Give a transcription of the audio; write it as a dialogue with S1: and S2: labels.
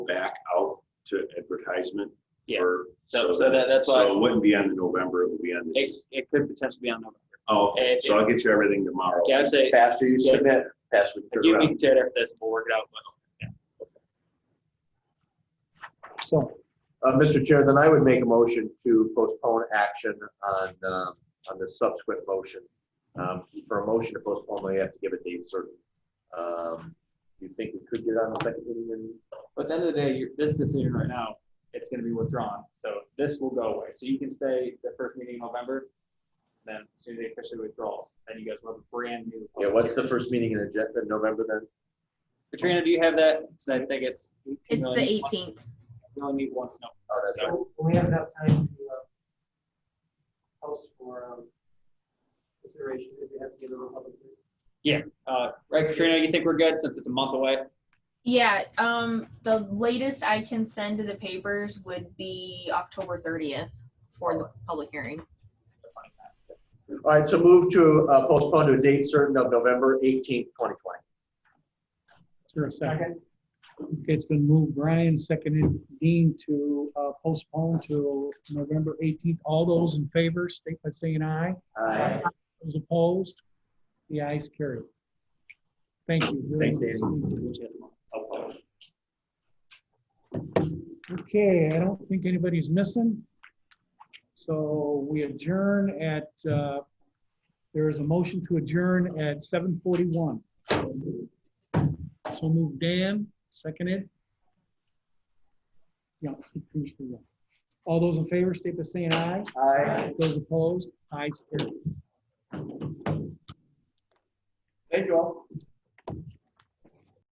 S1: to advertisement.
S2: Yeah.
S1: for-
S2: So, so that, that's why,
S1: So it wouldn't be on the November, it would be on the.
S2: it, it could potentially be on November.
S1: Oh, okay. so I'll get you everything tomorrow.
S2: Yeah, I'd say,
S3: Faster you
S2: Yeah.
S3: submit, faster we
S2: you
S3: turn
S2: you
S3: around.
S2: can tear it after this, we'll work it out. but-
S3: So, uh, Mr. Chair, then I would make a motion to postpone action on, um, on the subsequent motion. Um, For a motion to postpone, we have to give a date certain. Um, Do you think we could get on the second meeting in
S2: But at the end of the day, you're- this decision right now, it's gonna be withdrawn, so this will go away. So you can stay the first meeting in November, then as soon as they officially withdraws, then you guys will have a brand new.
S3: Yeah, what's the first meeting in agenda, November then?
S2: Katrina, do you have that? So I think it's. you
S4: It's the
S2: only need one-
S4: eighteenth.
S2: You only need once, no.
S3: Oh, that's right.
S5: We have enough time to uh, post for um, consideration if we have to give a public. hearing.
S2: Uh, right, Katrina, you think we're good since it's a month away?
S4: Yeah, um, the latest I can send to the papers would be October thirtieth for the public hearing.
S3: All right, so move to uh, postpone to a date certain of November eighteenth, twenty twenty.
S6: Is there a second? Okay, it's been moved, Brian, seconded Dean to uh, postpone to November 18th. All those in favor, state by saying aye.
S3: Aye.
S6: Those opposed, the ayes carry. Thank you.
S3: Thanks, Danny.
S6: Okay, I don't think anybody's missing. So we adjourn at, uh, there is a motion to adjourn at 7:41. So move Dan, seconded. Yeah. who's for what? All those in favor, state by saying aye.
S3: Aye.
S6: Those opposed, ayes carry.
S3: Thank you all.